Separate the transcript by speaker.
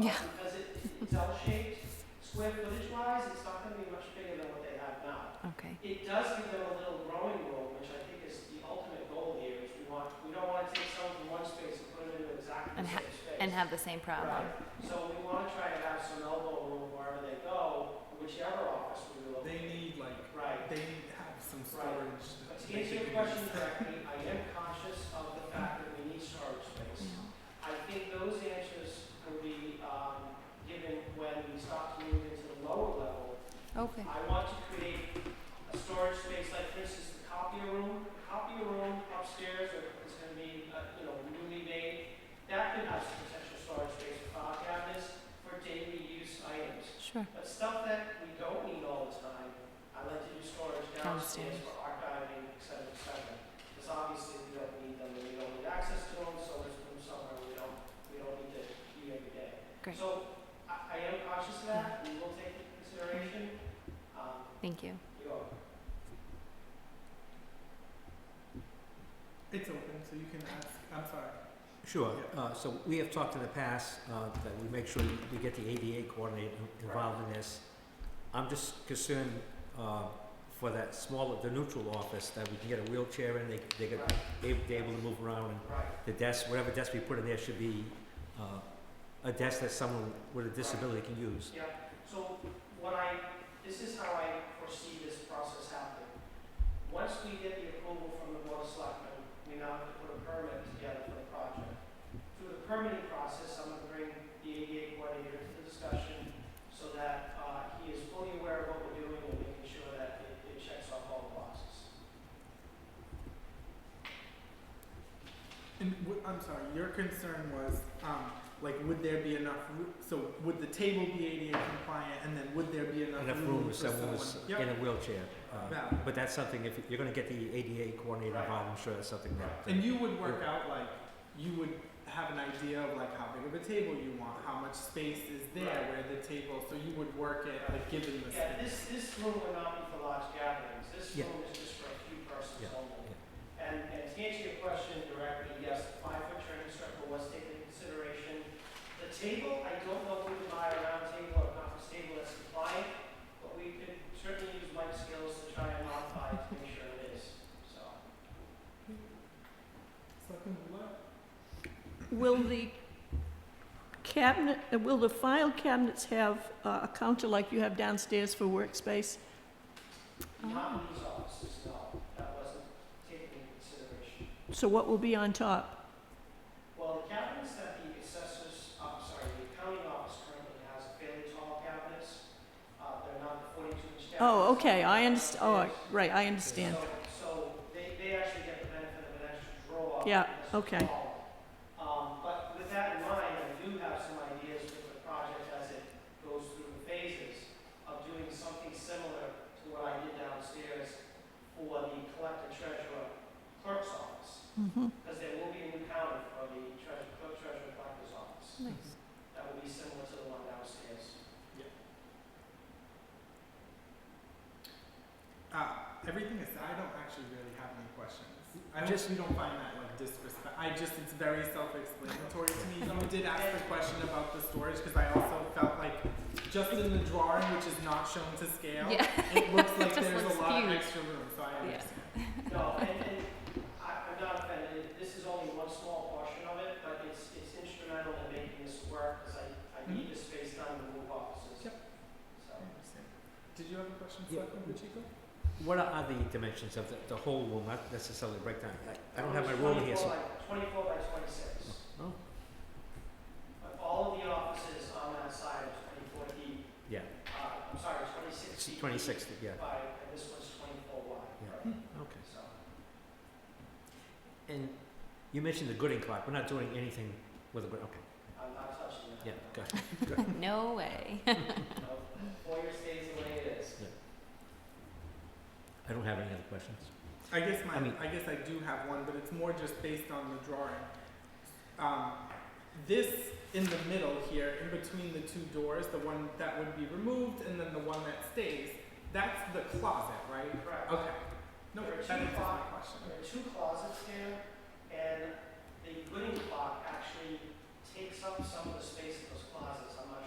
Speaker 1: Yeah.
Speaker 2: Because it, it's L-shaped, square footage wise, it's not gonna be much bigger than what they have now.
Speaker 1: Okay.
Speaker 2: It does give them a little growing room, which I think is the ultimate goal here, is we want, we don't wanna take someone from one space and put them into exactly
Speaker 1: And
Speaker 2: the
Speaker 1: ha-
Speaker 2: same space.
Speaker 1: And have the same problem.
Speaker 2: Right, so we wanna try to have some elbow room wherever they go, whichever office we look.
Speaker 3: They need like
Speaker 2: Right,
Speaker 3: they need to have some
Speaker 2: Right.
Speaker 3: storage.
Speaker 2: but
Speaker 3: that
Speaker 2: to
Speaker 3: they
Speaker 2: answer your
Speaker 3: can
Speaker 2: question
Speaker 3: use.
Speaker 2: directly, I am conscious of the fact that we need storage space. I think those answers will be um, given when we start to move into the lower level.
Speaker 1: Okay.
Speaker 2: I want to create a storage space like this is the copier room. The Copier room upstairs is going to be, uh, you know, newly made. That could have some potential storage space for file cabinets for daily use items.
Speaker 1: Sure.
Speaker 2: But stuff that we don't need all the time, I like to do storage downstairs
Speaker 1: Downstairs.
Speaker 2: for archiving, et cetera, et cetera. Because obviously we don't need them, and we don't need access to them, so there's room somewhere we don't, we don't need to be every day.
Speaker 1: Great.
Speaker 2: So I, I am cautious of that, we will take into consideration, um,
Speaker 1: Thank you.
Speaker 2: you know,
Speaker 3: It's open, so you can ask. I'm sorry.
Speaker 4: Sure, uh, so we have talked in the past, uh, that we make sure we get the ADA coordinator involved in this. I'm just concerned, uh, for that smaller, the neutral office, that we can get a wheelchair in, they, they get,
Speaker 2: right,
Speaker 4: they- they're able to move around, and
Speaker 2: right,
Speaker 4: the desk, whatever desk we put in there should be, uh, a desk that someone with a disability can use.
Speaker 2: yeah. So what I, this is how I foresee this process happening. Once we get the approval from the board of selectmen, we now have to put a permit together for the project. Through the permitting process, I'm gonna bring the ADA coordinator to the discussion so that, uh, he is fully aware of what we're doing and making sure that it, it checks off all the boxes.
Speaker 3: And w- I'm sorry. Your concern was um, like, would there be enough? Ro- so would the table be ADA compliant? And then would there be enough,
Speaker 4: Enough room
Speaker 3: for
Speaker 4: if someone was
Speaker 3: Yep.
Speaker 4: in a wheelchair, uh,
Speaker 3: Valid.
Speaker 4: but that's something, if you're gonna get the ADA coordinator
Speaker 2: Right.
Speaker 4: involved, I'm sure that's something that.
Speaker 3: And you would work out like you would have an idea of like how big of a table you want, how much space is there
Speaker 2: Right.
Speaker 3: where the table. So you would work it like given the
Speaker 2: Yeah,
Speaker 3: space.
Speaker 2: this, this room will not be for large gatherings, this
Speaker 4: Yeah.
Speaker 2: room is just for a few persons
Speaker 4: Yeah,
Speaker 2: only. And, and to answer your question directly, yes, the five-foot turning circle was taken into consideration. The table, I don't know if we can buy a round table or a conference table that's compliant, but we could certainly use Mike's skills to try and modify it to make sure it is, so.
Speaker 3: Selectman Bullock?
Speaker 5: Will the cabinet, uh, will the file cabinets have uh, a counter like you have downstairs for workspace?
Speaker 2: Not in these offices, no, that wasn't taken into consideration.
Speaker 5: So what will be on top?
Speaker 2: Well, the cabinets that the assessors, I'm sorry, the accounting office currently has fairly tall cabinets. Uh, they're not the forty-two inch cabinets.
Speaker 5: Oh, okay, I underst, oh,
Speaker 2: Upstairs.
Speaker 5: right, I understand.
Speaker 2: So, so they, they actually get the benefit of an extra draw.
Speaker 5: Yeah,
Speaker 2: because it's
Speaker 5: okay.
Speaker 2: tall. Um, but with that in mind, I do have some ideas with the project as it goes through the phases of doing something similar to what I did downstairs for the collector treasurer clerk's office.
Speaker 5: Mhm.
Speaker 2: Because there will be a new counter for the treasurer, clerk treasurer collector's office.
Speaker 1: Nice.
Speaker 2: That will be similar to the one downstairs.
Speaker 3: Uh, everything is. I don't actually really have any questions. I just
Speaker 4: Just-
Speaker 3: we don't find that like disrespect. I just it's very self-explanatory to me. You did ask the question about the storage because I also felt like just in the drawing, which is not shown to scale,
Speaker 1: Yeah.
Speaker 3: it looks like
Speaker 1: Just
Speaker 3: there's
Speaker 1: looks
Speaker 3: a lot
Speaker 1: huge.
Speaker 3: of extra room. So I
Speaker 1: Yeah.
Speaker 3: understand.
Speaker 2: No, and, and I, I'm not offended, this is only one small portion of it, but it's, it's instrumental in making this work, because I, I need this space time to move offices.
Speaker 3: Yep.
Speaker 2: So,
Speaker 3: I understand. Did you have a question,
Speaker 4: Yeah.
Speaker 3: Selectman Pacheco?
Speaker 4: What are- are the dimensions of the, the whole room, not necessarily the breakdown? I- I don't have my ruler here, so.
Speaker 2: 24 by 24 by 26.
Speaker 4: Oh,
Speaker 2: But all of the offices on that side are 24 deep,
Speaker 4: yeah,
Speaker 2: uh, I'm sorry, 26
Speaker 4: it's
Speaker 2: deep.
Speaker 4: twenty-six, yeah,
Speaker 2: By, and this one's 24 wide.
Speaker 4: Yeah. Hmm,
Speaker 2: right?
Speaker 4: okay.
Speaker 2: So,
Speaker 4: And you mentioned the Gooding clock, we're not doing anything with a, Gooding- okay,
Speaker 2: I'm not touching that.
Speaker 4: yeah, good.
Speaker 1: No way.
Speaker 2: No, Foyer stays the way it is.
Speaker 4: I don't have any other questions.
Speaker 3: I guess my,
Speaker 4: I
Speaker 3: I,
Speaker 4: mean-
Speaker 3: guess I do have one, but it's more just based on the drawing. Um, this in the middle here, in between the two doors, the one that would be removed and then the one that stays, that's the closet, right?
Speaker 2: Correct.
Speaker 3: Okay. No,
Speaker 2: There are
Speaker 3: that
Speaker 2: two
Speaker 3: answers my
Speaker 2: closets.
Speaker 3: question.
Speaker 2: There are two closets here, and the Gooding clock actually ta- takes up some of the space in those closets.